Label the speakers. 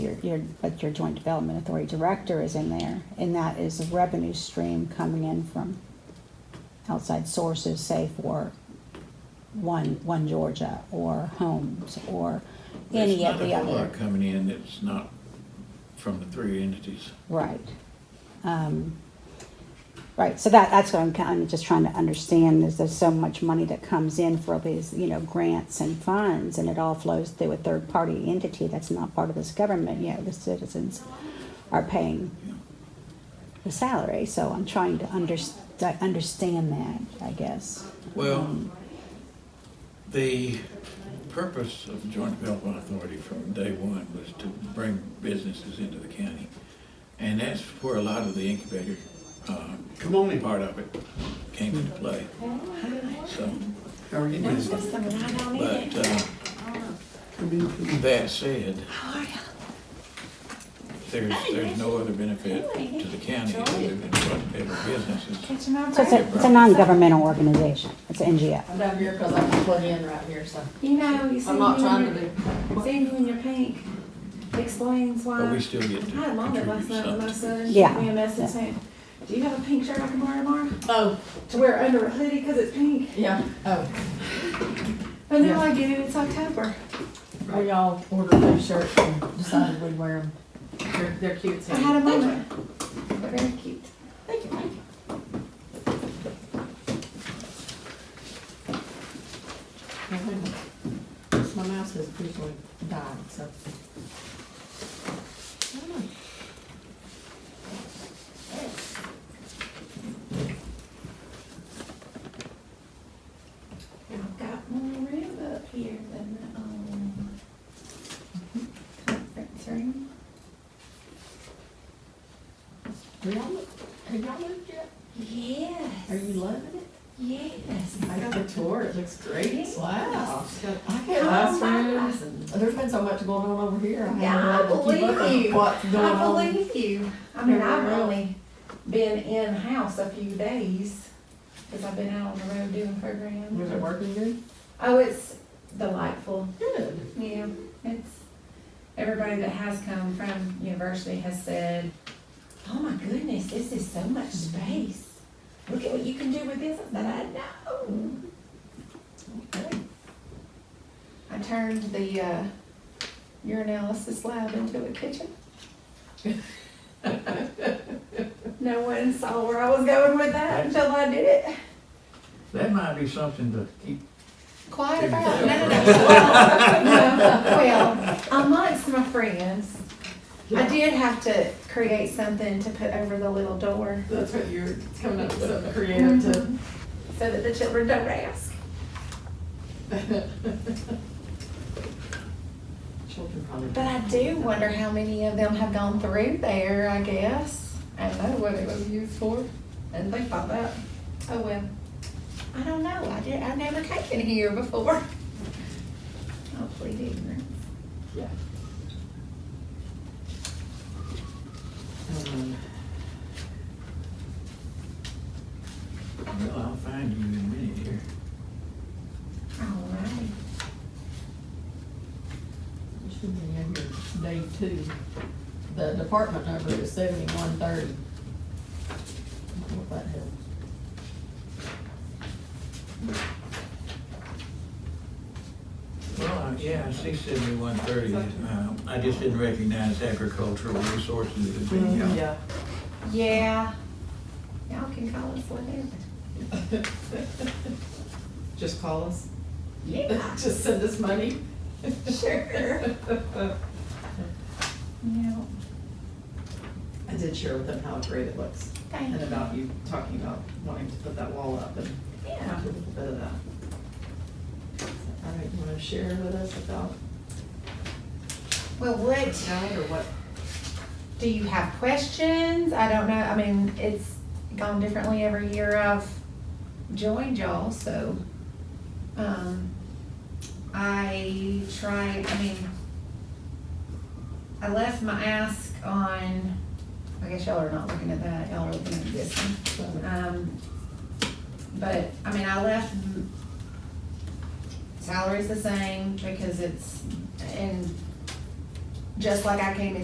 Speaker 1: your, your, like your joint development authority director is in there, and that is a revenue stream coming in from outside sources, say for one, one Georgia, or homes, or any of the
Speaker 2: There's not a whole
Speaker 1: other.
Speaker 2: lot coming in that's not from the three entities.
Speaker 1: Right. Um, Right, so that, that's what I'm kind of just trying to understand, is there's so much money that comes in for all these, you know, grants and funds, and it all flows through a third-party entity that's not part of this government, yet the citizens are paying
Speaker 2: you know.
Speaker 1: the salary, so I'm trying to under, to understand that, I guess.
Speaker 2: Well,
Speaker 1: Um,
Speaker 2: the purpose of Joint Development Authority from day one was to bring businesses into the county. And that's where a lot of the incubator, uh,
Speaker 3: Come on in.
Speaker 2: part of it came into play. So,
Speaker 3: How are you doing?
Speaker 2: but, uh,
Speaker 3: Come in, come in.
Speaker 2: That said, there's, there's no other benefit to the county other than what better businesses.
Speaker 1: So it's a, it's a non-governmental organization, it's an NGO.
Speaker 4: I'm down here because I can plug in right here, so
Speaker 5: You know, you see,
Speaker 4: I'm not
Speaker 5: you
Speaker 4: trying
Speaker 5: in
Speaker 4: to
Speaker 5: your-
Speaker 4: do.
Speaker 5: seeing you in your pink explains why.
Speaker 2: But we still get to
Speaker 5: I had mom last
Speaker 2: contribute
Speaker 5: night, and my
Speaker 2: something.
Speaker 5: son
Speaker 1: Yeah.
Speaker 5: sent me a message saying, do you have a pink shirt I can borrow tomorrow?
Speaker 4: Oh,
Speaker 5: To wear under a hoodie because it's pink.
Speaker 4: yeah, oh.
Speaker 5: But
Speaker 4: Yeah.
Speaker 5: now I get it, it's October.
Speaker 4: We all ordered those shirts and decided we'd wear them. They're, they're cute, so.
Speaker 5: I had a moment. They're very cute.
Speaker 4: Thank you, thank you. Now, wait a minute. My mouse has officially died, so. I don't know.
Speaker 5: I've got more room up here than the, um, conference room.
Speaker 4: Do y'all look, have y'all looked yet? Are
Speaker 5: Yes,
Speaker 4: you loving it?
Speaker 5: yes.
Speaker 4: I got the tour, it looks great.
Speaker 5: Yes.
Speaker 4: Wow. I
Speaker 5: Oh,
Speaker 4: get
Speaker 5: my.
Speaker 4: classrooms and, there's been so much going on over here. I
Speaker 5: Yeah, I
Speaker 4: haven't been able to
Speaker 5: believe
Speaker 4: keep up with
Speaker 5: you.
Speaker 4: What's going
Speaker 5: I
Speaker 4: on.
Speaker 5: believe you. I mean, I've
Speaker 4: Everywhere.
Speaker 5: only been in-house a few days, because I've been out on the road doing
Speaker 4: Was it
Speaker 5: programs.
Speaker 4: working good?
Speaker 5: Oh, it's delightful,
Speaker 4: Good.
Speaker 5: yeah, it's, everybody that has come from university has said, oh my goodness, this is so much space. Look at what you can do with this, that I said, "I know.
Speaker 4: Okay.
Speaker 5: I turned the, uh, urinalysis lab into a kitchen. No one saw where I was going with that until I did it.
Speaker 2: That might be something to keep,
Speaker 5: Quiet
Speaker 2: Dude,
Speaker 5: about it.
Speaker 2: yeah.
Speaker 5: No, no, no. Well, no, well, amongst my friends, I did have to create something to put over the little door Mm-hmm.
Speaker 4: That's what you're coming up with something creative to.
Speaker 5: so that the children don't ask.
Speaker 4: Children probably.
Speaker 5: But I do wonder how many of them have gone through there, I guess. I don't know what it was used for. And think about that. Oh, well, I don't know. I did, I've never taken here before. Hopefully didn't.
Speaker 4: Yeah. Um,
Speaker 2: well, I'll find you in a minute here.
Speaker 5: All right.
Speaker 4: it should be under day two. The department number is seventy-one thirty. If that helps.
Speaker 2: Well, I- yeah, I see seventy-one thirty. Uh, I just didn't recognize agricultural resources as being, uh,
Speaker 4: Mm, Yeah.
Speaker 5: Yeah. Y'all can call us whatever.
Speaker 4: Just call us.
Speaker 5: Yeah.
Speaker 4: Just send us money.
Speaker 5: Sure. Yeah.
Speaker 4: I did share with them how great it looks
Speaker 5: Thank
Speaker 4: and
Speaker 5: you.
Speaker 4: about you talking about wanting to put that wall up and
Speaker 5: Yeah.
Speaker 4: after a little bit of that. All right, you wanna share with us about
Speaker 5: Well, what,
Speaker 4: that or what?
Speaker 5: do you have questions? I don't know, I mean, it's gone differently every year I've joined y'all, so. Um, I tried, I mean, I left my ask on, I guess y'all are not looking at that, y'all are looking at this one. Um, but, I mean, I left m- salaries the same because it's, and just like I came in